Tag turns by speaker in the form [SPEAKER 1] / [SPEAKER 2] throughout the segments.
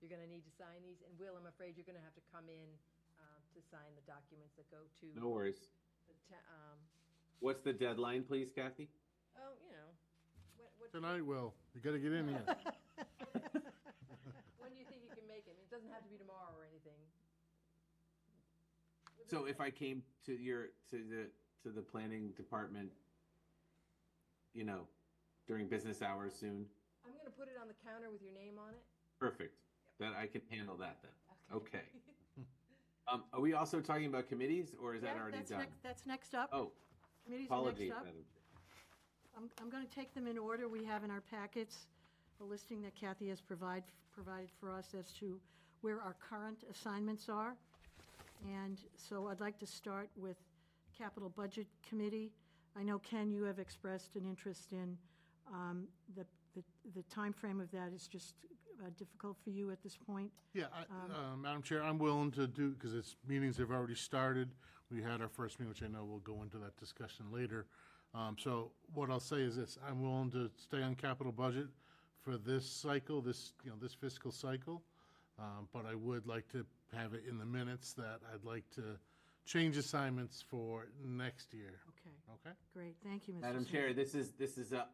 [SPEAKER 1] you're gonna need to sign these, and Will, I'm afraid you're gonna have to come in, um, to sign the documents that go to.
[SPEAKER 2] No worries.
[SPEAKER 1] The, ta- um,
[SPEAKER 2] What's the deadline, please, Kathy?
[SPEAKER 1] oh, you know, what, what.
[SPEAKER 3] Tonight, Will, you gotta get in here.
[SPEAKER 1] When do you think you can make it? I mean, It doesn't have to be tomorrow or anything.
[SPEAKER 2] So if I came to your, to the, to the planning department, you know, during business hours soon,
[SPEAKER 1] I'm gonna put it on the counter with your name on it.
[SPEAKER 2] perfect. That I can handle that then. Okay. Um, are we also talking about committees or is that
[SPEAKER 4] Yeah,
[SPEAKER 2] already
[SPEAKER 4] that's
[SPEAKER 2] done?
[SPEAKER 4] next- That's next up.
[SPEAKER 2] Oh,
[SPEAKER 4] Committees are next
[SPEAKER 2] apologies,
[SPEAKER 4] up.
[SPEAKER 2] Madam. Chair.
[SPEAKER 4] I'm, I'm going to take them in order. We have in our packets a listing that Kathy has provide, provided for us as to where our current assignments are. And so I'd like to start with Capital Budget Committee. I know, Ken, you have expressed an interest in, um, the, the- the timeframe of that is just uh, difficult for you at this point.
[SPEAKER 3] Yeah, I-
[SPEAKER 4] Um.
[SPEAKER 3] uh, Madam Chair, I'm willing to do, because it's, meetings have already started. We had our first meeting, which I know we'll go into that discussion later. Um, So what I'll say is this, I'm willing to stay on capital budget for this cycle, this, you know, this fiscal cycle. Um, But I would like to have it in the minutes that I'd like to change assignments for next year.
[SPEAKER 4] Okay,
[SPEAKER 3] Okay?
[SPEAKER 4] great. Thank you, Mr.
[SPEAKER 2] Madam
[SPEAKER 4] Smith.
[SPEAKER 2] Chair, this is, this is a,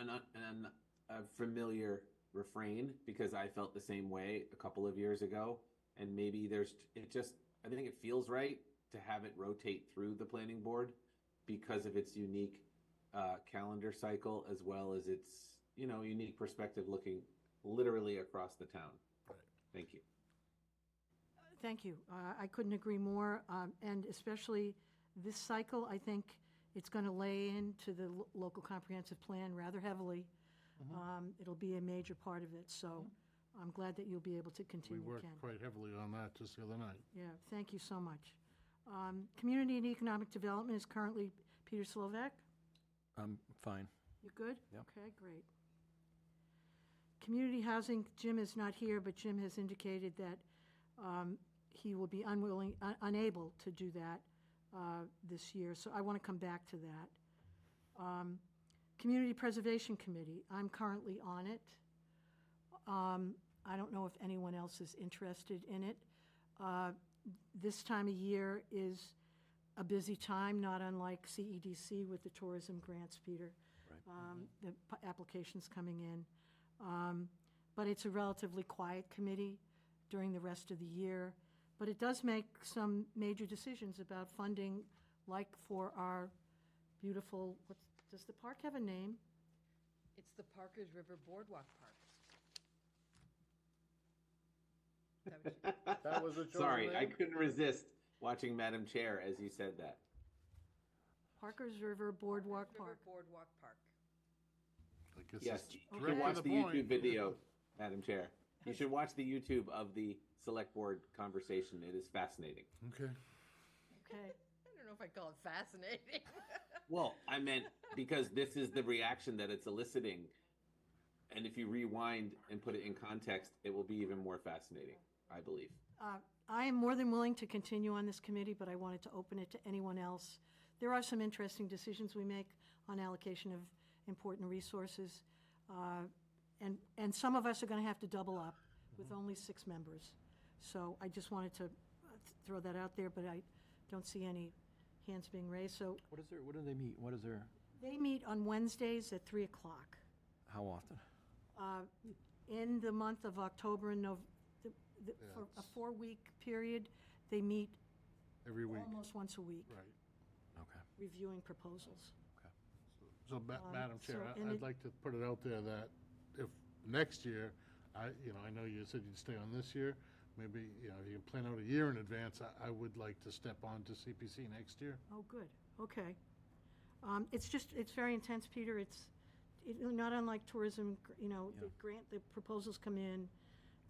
[SPEAKER 2] an, an- an, a familiar refrain because I felt the same way a couple of years ago. And maybe there's, it just, I think it feels right to have it rotate through the planning board because of its unique uh, calendar cycle as well as its, you know, unique perspective looking literally across the town. Thank you.
[SPEAKER 4] Thank you. Uh, I couldn't agree more, um, and especially this cycle, I think it's going to lay into the lo- local comprehensive plan rather heavily. Um, It'll be a major part of it, so I'm glad that you'll be able to
[SPEAKER 3] We
[SPEAKER 4] continue, Ken.
[SPEAKER 3] worked quite heavily on that just the other night.
[SPEAKER 4] Yeah, thank you so much. Um, Community and Economic Development is currently Peter Slovak.
[SPEAKER 5] I'm fine.
[SPEAKER 4] You good?
[SPEAKER 5] Yeah.
[SPEAKER 4] Okay, great. Community Housing, Jim is not here, but Jim has indicated that um, he will be unwilling, un- unable to do that uh, this year, so I want to come back to that. Um, Community Preservation Committee, I'm currently on it. Um, I don't know if anyone else is interested in it. Uh, This time of year is a busy time, not unlike CEDC with the tourism grants, Peter um, the p- applications coming in. Um, But it's a relatively quiet committee during the rest of the year. But it does make some major decisions about funding, like for our beautiful, what's, does the park have a name?
[SPEAKER 1] It's the Parker's River Boardwalk Park. Is that what you-
[SPEAKER 3] That was a choice.
[SPEAKER 2] Sorry, I couldn't resist watching Madam Chair as you said that.
[SPEAKER 4] Parker's River Boardwalk
[SPEAKER 1] River
[SPEAKER 4] Park.
[SPEAKER 1] Boardwalk Park.
[SPEAKER 3] I guess
[SPEAKER 2] Yes,
[SPEAKER 3] it's
[SPEAKER 2] you
[SPEAKER 3] direct
[SPEAKER 2] can
[SPEAKER 3] to
[SPEAKER 2] watch
[SPEAKER 3] the
[SPEAKER 2] the YouTube
[SPEAKER 3] point.
[SPEAKER 2] video, Madam Chair. You should watch the YouTube of the select board conversation. It is fascinating.
[SPEAKER 3] Okay.
[SPEAKER 4] Okay,
[SPEAKER 1] I don't know if I call it fascinating.
[SPEAKER 2] Well, I meant because this is the reaction that it's eliciting. And if you rewind and put it in context, it will be even more fascinating, I believe.
[SPEAKER 4] Uh, I am more than willing to continue on this committee, but I wanted to open it to anyone else. There are some interesting decisions we make on allocation of important resources, uh, and, and some of us are going to have to double up with only six members. So I just wanted to uh, th- throw that out there, but I don't see any hands being raised. So
[SPEAKER 5] What is there, what do they meet, what is there,
[SPEAKER 4] they meet on Wednesdays at 3 o'clock. Uh,
[SPEAKER 5] how often?
[SPEAKER 4] in the month of October and Nov, the- the- for a four-week period, they meet
[SPEAKER 3] Every week,
[SPEAKER 4] almost once a week,
[SPEAKER 3] right.
[SPEAKER 5] Okay,
[SPEAKER 4] reviewing proposals.
[SPEAKER 5] okay.
[SPEAKER 3] So, Ma- Madam Chair,
[SPEAKER 4] um,
[SPEAKER 3] I-
[SPEAKER 4] so- and
[SPEAKER 3] I'd
[SPEAKER 4] it-
[SPEAKER 3] like to put it out there that if next year, I, you know, I know you said you'd stay on this year, maybe, you know, if you can plan out a year in advance, I, I would like to step on to CPC next year.
[SPEAKER 4] Oh, good, okay. Um, It's just, it's very intense, Peter, it's, it- not unlike tourism, gr- you know, the
[SPEAKER 5] Yeah.
[SPEAKER 4] grant, the proposals come in,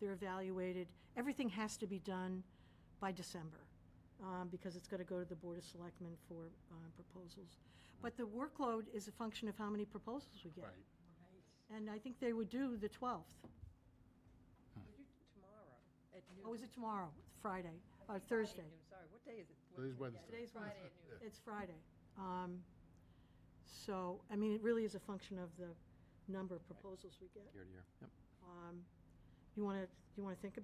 [SPEAKER 4] they're evaluated, everything has to be done by December, um, because it's gotta go to the Board of Selectmen for uh, proposals. But the workload is a function of how many proposals we get.
[SPEAKER 3] Right.
[SPEAKER 4] And I think they would do the 12th.
[SPEAKER 1] Could you do Tomorrow at noon.
[SPEAKER 4] Oh, is it tomorrow? Friday, uh, Thursday?
[SPEAKER 1] I'm sorry, what day is it?
[SPEAKER 3] Today's
[SPEAKER 1] Yeah,
[SPEAKER 3] Wednesday.
[SPEAKER 1] Today's Friday at noon.
[SPEAKER 4] It's Friday. Um, So, I mean, it really is a function of the number of proposals we get. Um,
[SPEAKER 5] Year to year, yep.
[SPEAKER 4] You want to, you want to think about